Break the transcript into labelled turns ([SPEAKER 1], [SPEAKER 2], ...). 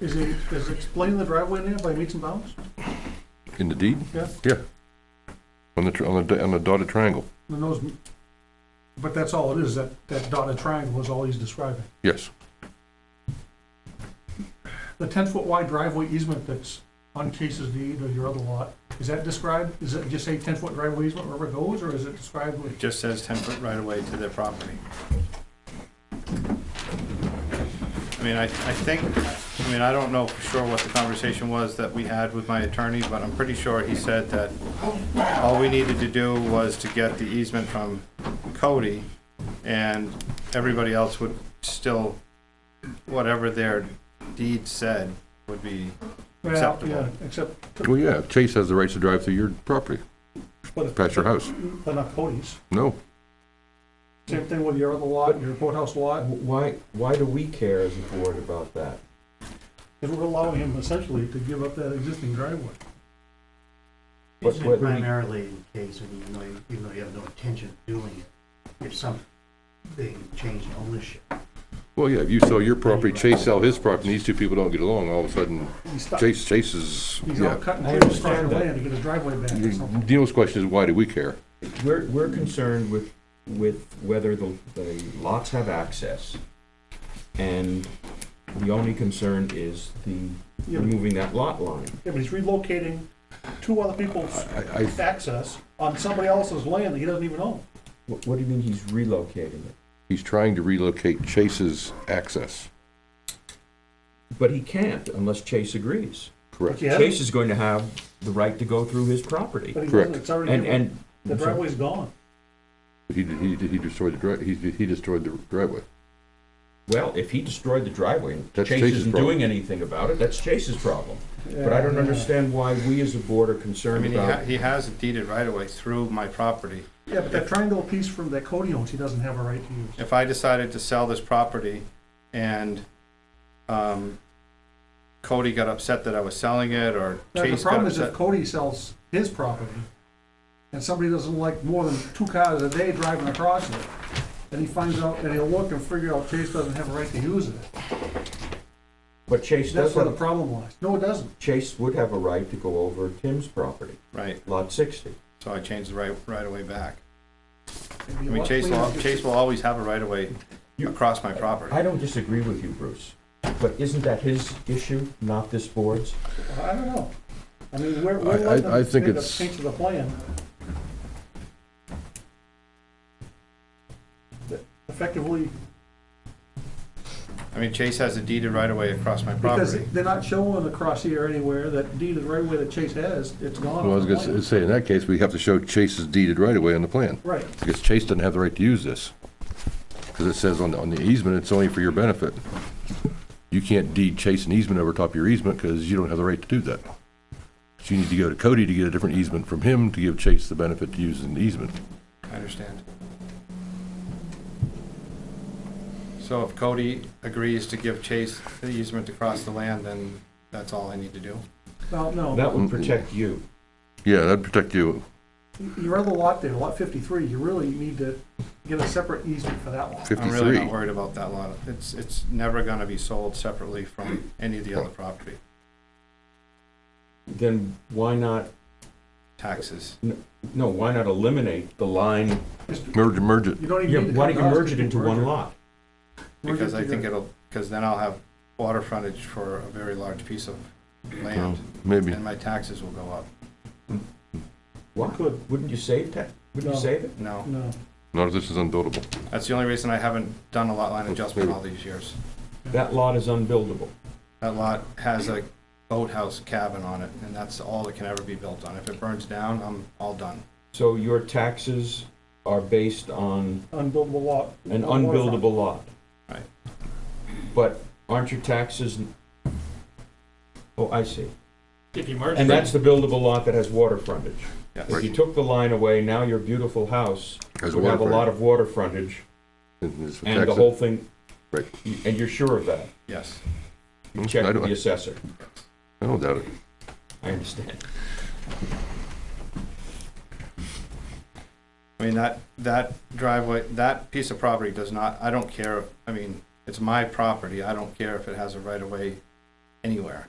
[SPEAKER 1] Is it, is it explain the driveway now by meets and bounds?
[SPEAKER 2] In the deed?
[SPEAKER 1] Yeah.
[SPEAKER 2] Yeah. On the, tr- on the, on the dotted triangle,
[SPEAKER 1] And those, but that's all it is, that, that dotted triangle is all he's describing.
[SPEAKER 2] yes.
[SPEAKER 1] The ten-foot wide driveway easement that's on Case's deed or your other lot, is that described, is it just say ten-foot driveway easement wherever it goes, or is it described
[SPEAKER 3] It
[SPEAKER 1] with?
[SPEAKER 3] just says ten foot right away to their property. I mean, I, I think, I mean, I don't know for sure what the conversation was that we had with my attorney, but I'm pretty sure he said that all we needed to do was to get the easement from Cody, and everybody else would still, whatever their deed said, would be
[SPEAKER 1] Well,
[SPEAKER 3] Acceptable.
[SPEAKER 1] Yeah, except,
[SPEAKER 2] Well, yeah, Chase has the rights to drive through your property,
[SPEAKER 1] but it's-
[SPEAKER 2] past your house.
[SPEAKER 1] but not Cody's.
[SPEAKER 2] No,
[SPEAKER 1] Same thing with your other lot, your courthouse lot,
[SPEAKER 4] Why, why do we care as a board about that?
[SPEAKER 1] is we're allowing him essentially to give up that existing driveway.
[SPEAKER 4] But
[SPEAKER 5] Usually
[SPEAKER 4] what we-
[SPEAKER 5] primarily in case, and even though, you- even though you have no intention of doing it, if some, they change ownership.
[SPEAKER 2] well, yeah, if you sell your property, Chase sell his property, and these two people don't get along, all of a sudden,
[SPEAKER 1] He's stuck, he's
[SPEAKER 2] Chase, Chase is,
[SPEAKER 1] all
[SPEAKER 2] yeah.
[SPEAKER 1] cut and
[SPEAKER 4] I
[SPEAKER 1] clear, he's trying
[SPEAKER 4] understand
[SPEAKER 1] to
[SPEAKER 4] that.
[SPEAKER 1] land to get his driveway back or something.
[SPEAKER 2] Dino's question is, why do we care?
[SPEAKER 4] We're, we're concerned with, with whether the, the lots have access. And the only concern is the
[SPEAKER 1] Yeah, but-
[SPEAKER 4] removing that lot line.
[SPEAKER 1] Yeah, but he's relocating two other people's
[SPEAKER 2] I, I,
[SPEAKER 1] access on somebody else's land that he doesn't even own.
[SPEAKER 4] What, what do you mean he's relocating it?
[SPEAKER 2] he's trying to relocate Chase's access,
[SPEAKER 4] But he can't unless Chase agrees.
[SPEAKER 1] But
[SPEAKER 2] correct?
[SPEAKER 1] he
[SPEAKER 4] Chase
[SPEAKER 1] hasn't,
[SPEAKER 4] is going to have the right to go through his property.
[SPEAKER 1] but he
[SPEAKER 2] Correct.
[SPEAKER 1] doesn't, it's already,
[SPEAKER 4] And,
[SPEAKER 1] given.
[SPEAKER 4] and.
[SPEAKER 1] the driveway's gone.
[SPEAKER 2] He, did- he, did- he destroyed the dri, he, he destroyed the driveway.
[SPEAKER 4] Well, if he destroyed the driveway, and
[SPEAKER 2] That's
[SPEAKER 4] Chase
[SPEAKER 2] Chase's
[SPEAKER 4] isn't
[SPEAKER 2] problem.
[SPEAKER 4] doing anything about it, that's Chase's problem. But I don't understand why we as a board are
[SPEAKER 3] I
[SPEAKER 4] concerned
[SPEAKER 3] mean, he ha-
[SPEAKER 4] about.
[SPEAKER 3] he has it deeded right away through my property.
[SPEAKER 1] Yeah, but that triangle piece from that Cody owns, he doesn't have a right to use.
[SPEAKER 3] if I decided to sell this property and um, Cody got upset that I was selling it or
[SPEAKER 1] Now, the
[SPEAKER 3] Chase got
[SPEAKER 1] problem is if
[SPEAKER 3] upset.
[SPEAKER 1] Cody sells his property and somebody doesn't like more than two cars a day driving across it, and he finds out, and he'll look and figure out Chase doesn't have a right to use it.
[SPEAKER 4] But Chase does
[SPEAKER 1] That's where the
[SPEAKER 4] have,
[SPEAKER 1] problem lies. No, it doesn't.
[SPEAKER 4] Chase would have a right to go over Tim's property,
[SPEAKER 3] Right,
[SPEAKER 4] lot sixty.
[SPEAKER 3] so I changed the right, right of way back.
[SPEAKER 1] It'd
[SPEAKER 3] I
[SPEAKER 1] be a
[SPEAKER 3] mean,
[SPEAKER 1] lot
[SPEAKER 3] Chase
[SPEAKER 1] cleaner
[SPEAKER 3] will,
[SPEAKER 1] if it's-
[SPEAKER 3] Chase will always have a right of way
[SPEAKER 4] You-
[SPEAKER 3] across my property.
[SPEAKER 4] I don't disagree with you, Bruce, but isn't that his issue, not this board's?
[SPEAKER 1] I don't know. I mean, we're,
[SPEAKER 2] I-
[SPEAKER 1] we're
[SPEAKER 2] I-
[SPEAKER 1] letting
[SPEAKER 2] I
[SPEAKER 1] them
[SPEAKER 2] think
[SPEAKER 1] make a
[SPEAKER 2] it's-
[SPEAKER 1] change to the plan. That Effectively,
[SPEAKER 3] I mean, Chase has a deeded right of way across my
[SPEAKER 1] because
[SPEAKER 3] property.
[SPEAKER 1] they're not showing across here anywhere that deed is right where that Chase has, it's gone.
[SPEAKER 2] Well, I was
[SPEAKER 1] on the
[SPEAKER 2] gonna
[SPEAKER 1] plan.
[SPEAKER 2] say, in that case, we have to show Chase's deeded right away on the plan.
[SPEAKER 1] Right,
[SPEAKER 2] Because Chase doesn't have the right to use this. Because it says on the, on the easement, it's only for your benefit. You can't deed Chase an easement over top of your easement because you don't have the right to do that. So you need to go to Cody to get a different easement from him to give Chase the benefit to use an easement.
[SPEAKER 3] I understand. So if Cody agrees to give Chase the easement to cross the land, then that's all I need to do.
[SPEAKER 1] well, no,
[SPEAKER 4] That would protect you.
[SPEAKER 2] Yeah, that'd protect you.
[SPEAKER 1] your other lot there, lot fifty-three, you really need to get a separate easement for that lot.
[SPEAKER 3] I'm really not
[SPEAKER 2] 53.
[SPEAKER 3] worried about that lot. It's, it's never gonna be sold separately from any of the other property
[SPEAKER 4] Then why not,
[SPEAKER 3] taxes.
[SPEAKER 4] no, why not eliminate the line?
[SPEAKER 1] Just-
[SPEAKER 2] Merge, merge it.
[SPEAKER 1] You don't
[SPEAKER 4] Yeah,
[SPEAKER 1] even need to
[SPEAKER 4] why don't
[SPEAKER 1] come
[SPEAKER 4] you
[SPEAKER 1] to us
[SPEAKER 4] merge it
[SPEAKER 1] to
[SPEAKER 4] into
[SPEAKER 1] merge
[SPEAKER 4] one
[SPEAKER 1] it.
[SPEAKER 4] lot?
[SPEAKER 1] Merge
[SPEAKER 3] Because I think
[SPEAKER 1] together.
[SPEAKER 3] it'll, because then I'll have water frontage for a very large piece of land,
[SPEAKER 2] Maybe.
[SPEAKER 3] and my taxes will go up.
[SPEAKER 4] Why,
[SPEAKER 1] Could.
[SPEAKER 4] wouldn't you save that? Wouldn't
[SPEAKER 1] No.
[SPEAKER 4] you save it?
[SPEAKER 3] No,
[SPEAKER 1] No,
[SPEAKER 2] Not if this is unbuildable.
[SPEAKER 3] that's the only reason I haven't done a lot line adjustment all these years.
[SPEAKER 4] That lot is unbuildable.
[SPEAKER 3] That lot has a boathouse cabin on it, and that's all that can ever be built on. If it burns down, I'm all done.
[SPEAKER 4] So your taxes are based on
[SPEAKER 1] unbuildable lot.
[SPEAKER 4] an
[SPEAKER 1] Waterfront.
[SPEAKER 4] unbuildable lot.
[SPEAKER 3] Right.
[SPEAKER 4] But aren't your taxes? Oh, I see.
[SPEAKER 6] If you merge
[SPEAKER 4] And that's
[SPEAKER 6] them,
[SPEAKER 4] the buildable lot that has water frontage.
[SPEAKER 3] Yes.
[SPEAKER 4] If you took the line away, now your beautiful house
[SPEAKER 2] Has
[SPEAKER 4] would have a lot of water frontage
[SPEAKER 2] And it's
[SPEAKER 4] and the
[SPEAKER 2] taxed-
[SPEAKER 4] whole thing.
[SPEAKER 2] Right.
[SPEAKER 4] You- And you're sure of that?
[SPEAKER 3] Yes.
[SPEAKER 4] You
[SPEAKER 2] Mm,
[SPEAKER 4] checked
[SPEAKER 2] I
[SPEAKER 4] with
[SPEAKER 2] don't-
[SPEAKER 4] the assessor.
[SPEAKER 2] I don't doubt it.
[SPEAKER 4] I understand.
[SPEAKER 3] I mean, that, that driveway, that piece of property does not, I don't care, I mean, it's my property, I don't care if it has a right-of-way anywhere.